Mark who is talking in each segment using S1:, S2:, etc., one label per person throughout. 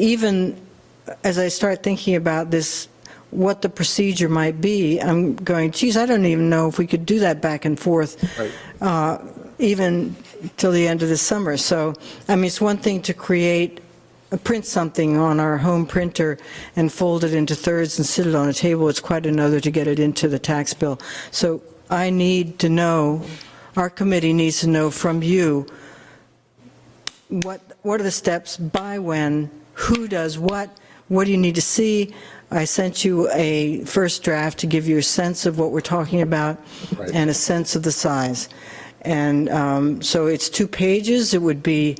S1: Even as I start thinking about this, what the procedure might be, I'm going, geez, I don't even know if we could do that back and forth, uh, even till the end of the summer. So, I mean, it's one thing to create, uh, print something on our home printer and fold it into thirds and sit it on a table. It's quite another to get it into the tax bill. So I need to know, our committee needs to know from you, what, what are the steps, by when, who does what, what do you need to see? I sent you a first draft to give you a sense of what we're talking about
S2: Right.
S1: and a sense of the size. And um, so it's two pages, it would be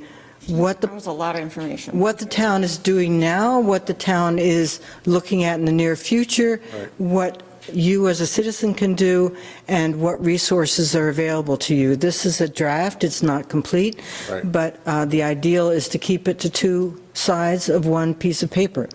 S1: what
S3: That
S1: the,
S3: was a lot of information.
S1: what the town is doing now, what the town is looking at in the near future, what you as a citizen can do, and what resources are available to you. This is a draft, it's not complete,
S2: Right.
S1: but uh, the ideal is to keep it to two sides of one piece of paper.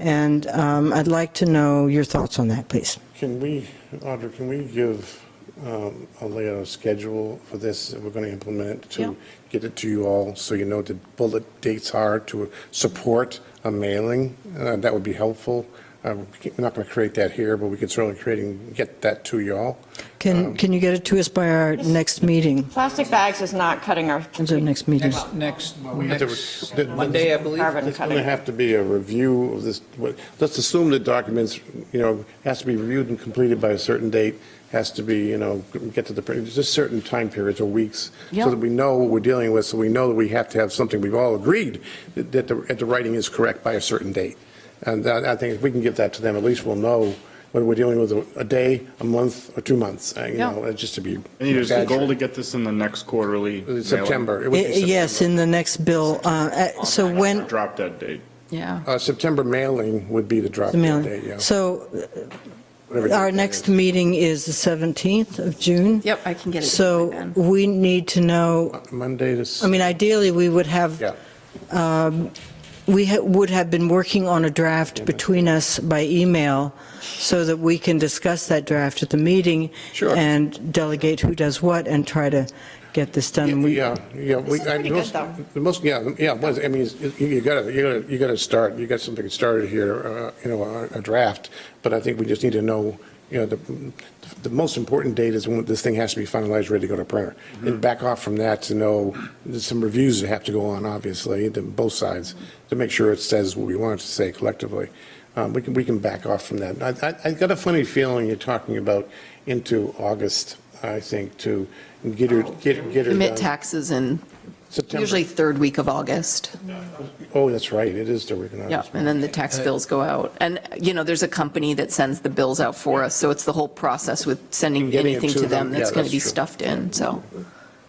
S1: And um, I'd like to know your thoughts on that, please.
S2: Can we, Audra, can we give um, a layout of schedule for this that we're going to implement
S3: Yeah.
S2: to get it to you all, so you know what the bullet dates are to support a mailing? Uh, That would be helpful. Uh, We're not going to create that here, but we can certainly create and get that to you all. Um,
S1: Can, can you get it to us by our next meeting?
S3: Plastic bags is not cutting our
S1: When's our next meeting?
S4: Next,
S2: have to-
S4: next
S2: the-
S4: Monday, I believe.
S3: carbon
S2: There's going to
S3: cutting.
S2: have to be a review of this, what- let's assume the documents, you know, has to be reviewed and completed by a certain date, has to be, you know, get to the, there's just certain time periods or weeks, so
S3: Yeah.
S2: that we know what we're dealing with, so we know that we have to have something, we've all agreed that that the, that the writing is correct by a certain date. And that- I think if we can give that to them, at least we'll know whether we're dealing with a- a day, a month, or two months, uh, you
S3: Yeah.
S2: know, uh, just to be.
S5: And it is the goal to get this in the next quarterly. mailing.
S2: September. It would
S3: Eh,
S2: be
S1: Eh, Yes,
S2: September.
S1: in the next bill. uh, uh, So when,
S5: Drop dead date.
S3: Yeah.
S2: Uh, September mailing would be the drop
S1: The
S2: dead
S1: mailing.
S2: date, yeah.
S1: So
S2: Whatever
S1: our
S2: date that
S1: next
S2: is.
S1: meeting is the 17th of June.
S3: Yep, I can get it.
S1: So we need to know,
S2: Monday this.
S1: I mean, ideally, we would
S2: Yeah,
S1: have, we ha- would have been working on a draft between us by email so that we can discuss that draft at the meeting.
S2: Sure.
S1: And delegate who does what and try to get this done. And we-
S2: yeah, yeah. we-
S3: is
S2: I-
S3: pretty good,
S2: most-
S3: though.
S2: the Most, yeah, yeah, it was, I mean, it's- you you gotta, you gotta, you gotta start, you got something started here, uh, you know, a- a draft, but I think we just need to know, you know, the, the most important date is when this thing has to be finalized, ready to go to printer. And back off from that to know, there's some reviews that have to go on, obviously, to both sides, to make sure it says what we want it to say collectively. Um, We can, we can back off from that. I, I- I got a funny feeling you're talking about into August, I think, to get her, get get her done.
S6: Submit taxes in
S2: September.
S6: usually third week of August.
S2: Oh, that's right, it is the week in
S6: Yeah,
S2: August.
S6: and then the tax bills go out. And, you know, there's a company that sends the bills out for us, so it's the whole process with sending
S2: Getting it
S6: anything
S2: to
S6: to them
S2: them, yeah,
S6: that's going
S2: that's
S6: to be
S2: true.
S6: stuffed in, so.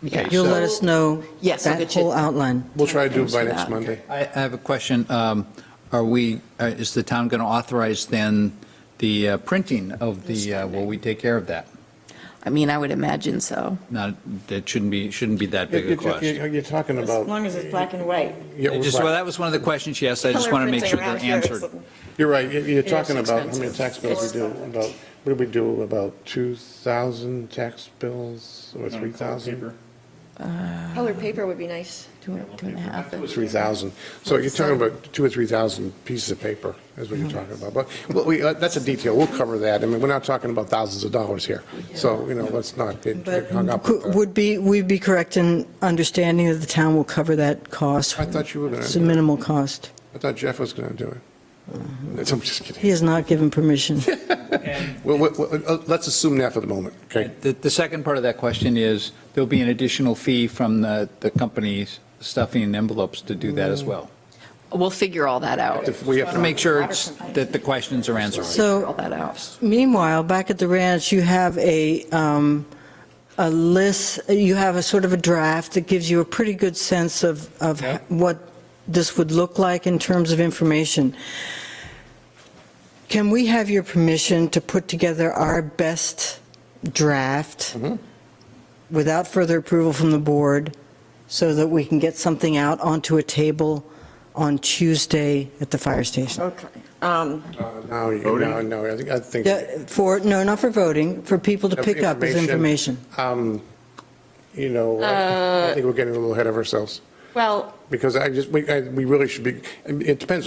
S6: yeah.
S1: You'll let us know
S6: Yes, I'll
S1: that
S6: get you-
S1: whole outline.
S2: We'll try to do it by
S6: Thanks
S2: next
S6: for that.
S2: Monday.
S4: I I have a question. Um, Are we, uh, is the town going to authorize then the uh, printing of the, uh, will we take care of that?
S6: I mean, I would imagine so.
S4: Not, that shouldn't be, shouldn't be that
S2: You're
S4: big a question.
S2: you're- you're talking
S3: As
S2: about,
S3: long as it's black and white.
S2: yeah,
S4: I
S2: we're
S4: just- Well,
S2: right.
S4: that was one of the questions she asked. I just want to make sure they're answered.
S2: you're right, You're- you're talking about, how many
S6: expensive.
S2: tax bills we do, about, what do we do, about 2,000 tax bills, or 3,000?
S7: Color paper would be nice.
S6: Two two and a half.
S2: 3,000, so you're talking about two or 3,000 pieces of paper, is what you're talking about, but, well, we, uh, that's a detail, we'll cover that, I mean, we're not talking about thousands of dollars here, so, you know, let's not get get hung up with
S1: Could-
S2: that.
S1: Would be, we'd be correct in understanding that the town will cover that cost.
S2: I thought you were gonna
S1: It's a
S2: do it.
S1: minimal cost.
S2: I thought Jeff was going to do
S1: Mm-hmm.
S2: it. I'm just kidding.
S1: He has not given permission.
S2: Well, well, well, uh, let's assume that for the moment, okay?
S4: The, the second part of that question is, there'll be an additional fee from the, the companies stuffing envelopes to do that as
S2: Mm.
S4: well.
S6: We'll figure all that out.
S2: If we have
S4: To make sure it's- that the questions are answered.
S6: Figure All
S1: So
S6: that out.
S1: meanwhile, back at the ranch, you have a, um, a list, you have a sort of a draft that gives you a pretty good sense of, of
S4: Yeah.
S1: what this would look like in terms of information. Can we have your permission to put together our best draft without further approval from the board so that we can get something out onto a table on Tuesday at the fire station?
S3: Okay. Um,
S2: No, uh, you- no, no, I think, I think.
S1: Yeah, For, no, not for voting, for people to pick up as information.
S2: Um, You know, I think we're getting a little ahead of ourselves.
S3: Well,
S2: Because I just, we, I- we really should be, it depends